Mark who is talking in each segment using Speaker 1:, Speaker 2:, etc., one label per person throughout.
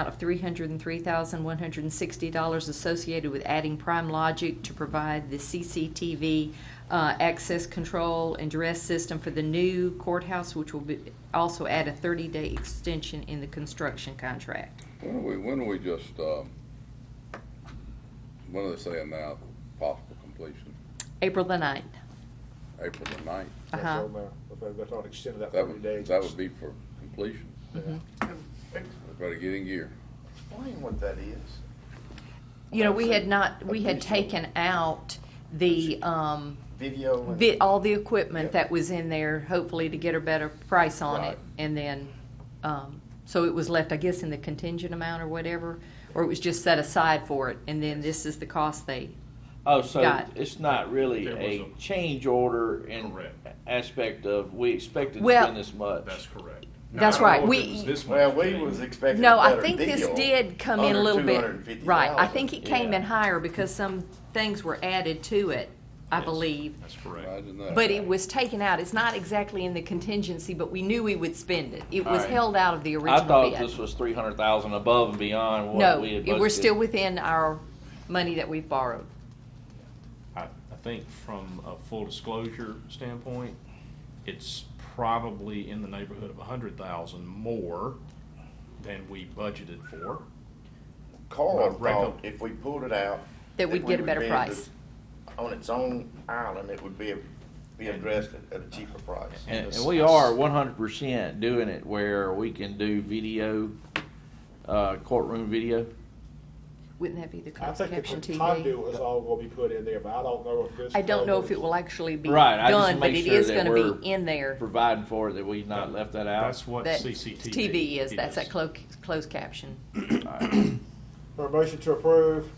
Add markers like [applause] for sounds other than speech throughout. Speaker 1: amount of $303,160 associated with adding Prime Logic to provide the CCTV uh, access control and duress system for the new courthouse, which will be, also add a 30-day extension in the construction contract.
Speaker 2: When are we, when are we just, um, when are they saying now, possible completion?
Speaker 1: April the 9th.
Speaker 2: April the ninth?
Speaker 3: That's
Speaker 1: Uh-huh.
Speaker 3: all, Mayor. If they've got to extend that
Speaker 2: That
Speaker 3: thirty
Speaker 2: would,
Speaker 3: days.
Speaker 2: that would be for completion.
Speaker 1: Mm-hmm.
Speaker 3: Yeah.
Speaker 2: We better get in gear.
Speaker 4: Explain what that is.
Speaker 1: You know, we had not, we had taken out the, um,
Speaker 4: Video and.
Speaker 1: the, all the equipment
Speaker 4: Yeah.
Speaker 1: that was in there, hopefully to get a better price on it.
Speaker 4: Right.
Speaker 1: And then, um, so it was left, I guess, in the contingent amount or whatever, or it was just set aside for it. And then this is the cost they,
Speaker 5: Oh, so
Speaker 1: Got it.
Speaker 5: it's not really
Speaker 6: There was
Speaker 5: a
Speaker 6: a-
Speaker 5: change order in
Speaker 6: Correct.
Speaker 5: aspect of, we expected to
Speaker 1: Well-
Speaker 5: spend this much.
Speaker 6: That's correct. Now,
Speaker 1: That's
Speaker 6: I don't
Speaker 1: right.
Speaker 6: know if
Speaker 1: We-
Speaker 6: it was this
Speaker 4: Well,
Speaker 6: much
Speaker 4: we
Speaker 6: thing.
Speaker 4: was expecting
Speaker 1: no,
Speaker 4: a
Speaker 1: I
Speaker 4: better
Speaker 1: think this
Speaker 4: deal,
Speaker 1: did come in a
Speaker 4: under
Speaker 1: little bit.
Speaker 4: $250,000.
Speaker 1: Right, I think it came
Speaker 5: Yeah.
Speaker 1: in higher because some things were added to it, I
Speaker 6: Yes,
Speaker 1: believe.
Speaker 6: That's correct.
Speaker 2: Imagine that.
Speaker 1: But it was taken out. It's not exactly in the contingency, but we knew we would spend it. It was
Speaker 5: Alright.
Speaker 1: held out of the
Speaker 5: I
Speaker 1: original
Speaker 5: thought
Speaker 1: bid.
Speaker 5: this was three hundred thousand above and beyond
Speaker 1: No,
Speaker 5: what we had budgeted.
Speaker 1: it- we're still within our money that we've borrowed.
Speaker 6: I, I think from a full disclosure standpoint, it's probably in the neighborhood of a hundred thousand more than we budgeted for.
Speaker 4: Carl
Speaker 6: Right, right.
Speaker 4: thought if we pulled it out.
Speaker 1: That we'd
Speaker 4: we
Speaker 1: get a
Speaker 4: would
Speaker 1: better
Speaker 4: be able to-
Speaker 1: price.
Speaker 4: On its own island, it would be, be addressed at- at a cheaper price.
Speaker 5: And,
Speaker 6: this-
Speaker 5: and we are one hundred percent doing it where we can do video, uh, courtroom video.
Speaker 1: Wouldn't that be the
Speaker 3: I
Speaker 1: cost
Speaker 3: think
Speaker 1: caption
Speaker 3: the
Speaker 1: TV?
Speaker 3: conduit is all gonna be put in there, but I don't know if this.
Speaker 1: I don't know if it will actually be
Speaker 5: Right, I just
Speaker 1: done, but
Speaker 5: make
Speaker 1: it
Speaker 5: sure
Speaker 1: is
Speaker 5: that
Speaker 1: gonna
Speaker 5: we're-
Speaker 1: be in there.
Speaker 5: Providing for it, that we've not left that out.
Speaker 6: That's what
Speaker 1: That
Speaker 6: CCTV.
Speaker 1: TV is, that's that clo- closed caption.
Speaker 3: For a motion to approve,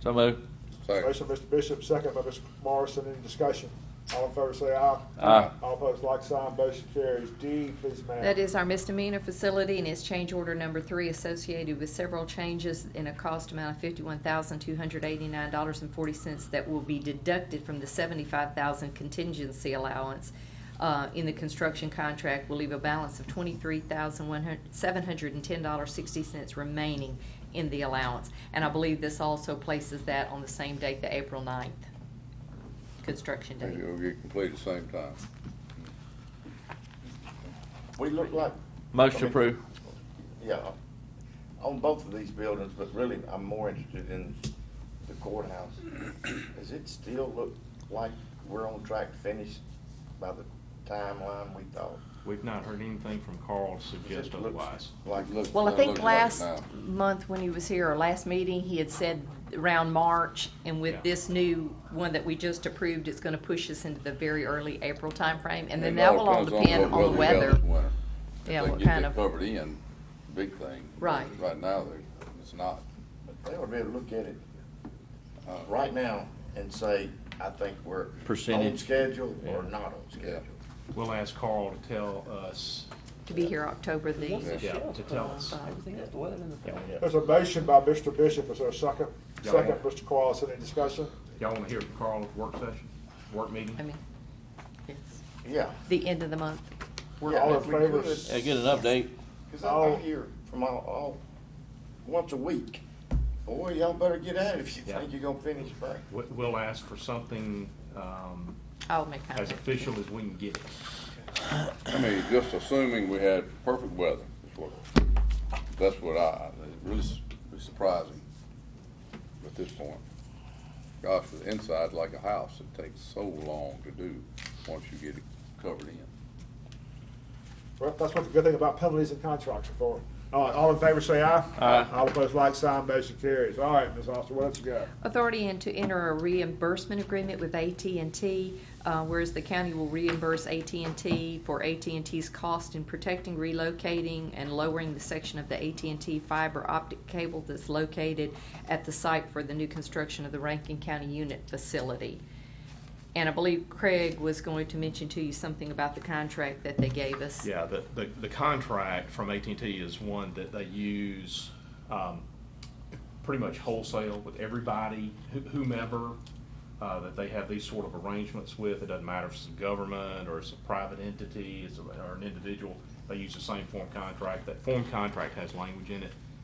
Speaker 5: So moved.
Speaker 2: Second.
Speaker 3: motion by Mr. Bishop, second by Mr. Morrison, any discussion? All in favor say aye.
Speaker 5: Aye.
Speaker 3: All opposed, like sign, motion carries. D, please, ma'am.
Speaker 1: That is our misdemeanor facility and it's change order number three associated with several changes in a cost amount of fifty-one thousand, two hundred eighty-nine dollars and forty cents that will be deducted from the seventy-five thousand contingency allowance uh, in the construction contract. will leave a balance of twenty-three thousand, one hundred, seven hundred and ten dollars, sixty cents remaining in the allowance. And I believe this also places that on the same date, the April 9th construction date.
Speaker 2: Maybe it'll get completed at the same time.
Speaker 4: We look like,
Speaker 5: Motion
Speaker 4: Okay.
Speaker 5: approved.
Speaker 4: yeah, on both of these buildings, but really I'm more interested in the
Speaker 6: [clears throat]
Speaker 4: courthouse. Does it still look like we're on track to finish by the timeline we thought?
Speaker 6: We've not heard anything from Carl to
Speaker 4: It
Speaker 6: suggest
Speaker 4: just looks
Speaker 6: otherwise.
Speaker 4: Like,
Speaker 2: It looks-
Speaker 1: Well, I
Speaker 2: it
Speaker 1: think
Speaker 2: looks like it
Speaker 1: last
Speaker 2: now.
Speaker 1: month when he was here, or last meeting, he had said around March, and
Speaker 6: Yeah.
Speaker 1: with this new one that we just approved, it's gonna push us into the very early April timeframe, and then
Speaker 2: It
Speaker 1: that
Speaker 2: all
Speaker 1: will all
Speaker 2: depends
Speaker 1: depend
Speaker 2: what
Speaker 1: on the weather.
Speaker 2: this winter. If
Speaker 1: Yeah,
Speaker 2: they
Speaker 1: what
Speaker 2: get
Speaker 1: kind
Speaker 2: that
Speaker 1: of-
Speaker 2: Covered in, big thing.
Speaker 1: Right.
Speaker 2: Right now, they- it's not.
Speaker 4: they would be able to look at it uh, right now and say, I think we're on
Speaker 5: Percentage.
Speaker 4: schedule or
Speaker 5: Yeah.
Speaker 4: not on schedule.
Speaker 6: We'll ask Carl to tell us,
Speaker 1: To be here October the,
Speaker 6: yeah, to tell us.
Speaker 3: There's a motion by Mr. Bishop, is there a second?
Speaker 6: Yeah.
Speaker 3: Second, Mr. Cross, any discussion?
Speaker 6: Y'all wanna hear from Carl at work session, work meeting?
Speaker 1: I mean, it's
Speaker 4: Yeah.
Speaker 1: the end of the month.
Speaker 3: We're
Speaker 4: Yeah,
Speaker 3: all in
Speaker 4: if we
Speaker 3: favor.
Speaker 4: could.
Speaker 5: Yeah, get an update.
Speaker 4: Cause I- I hear from all, all, once a week, boy, y'all better get at it if you
Speaker 6: Yeah.
Speaker 4: think you're gonna finish by.
Speaker 6: We- We'll ask for something, um,
Speaker 1: I'll make
Speaker 6: as
Speaker 1: contact.
Speaker 6: official as we can get it.
Speaker 2: I mean, just assuming we had perfect weather, is what- that's what I, it really s- is surprising at this point. Gosh, the inside's like a house, it takes so long to do once you get it covered in.
Speaker 3: Well, that's what the good thing about penalties and contracts are for. All right, all in favor say aye.
Speaker 5: Aye.
Speaker 3: All opposed, like sign, motion carries. All right, Ms. Austin, what else you got?
Speaker 1: Authority and to enter a reimbursement agreement with AT&T, uh, whereas the county will reimburse AT&T for AT&T's cost in protecting, relocating, and lowering the section of the AT&T fiber optic cable that's located at the site for the new construction of the Rankin County Unit Facility. And I believe Craig was going to mention to you something about the contract that they gave us.
Speaker 6: Yeah, the, the, the contract from at and t is one that they use, um, pretty much wholesale with everybody, who- whomever, uh, that they have these sort of arrangements with. It doesn't matter if it's the government or it's a private entity, it's, a- or an individual, they use the same form contract. That form contract has language in it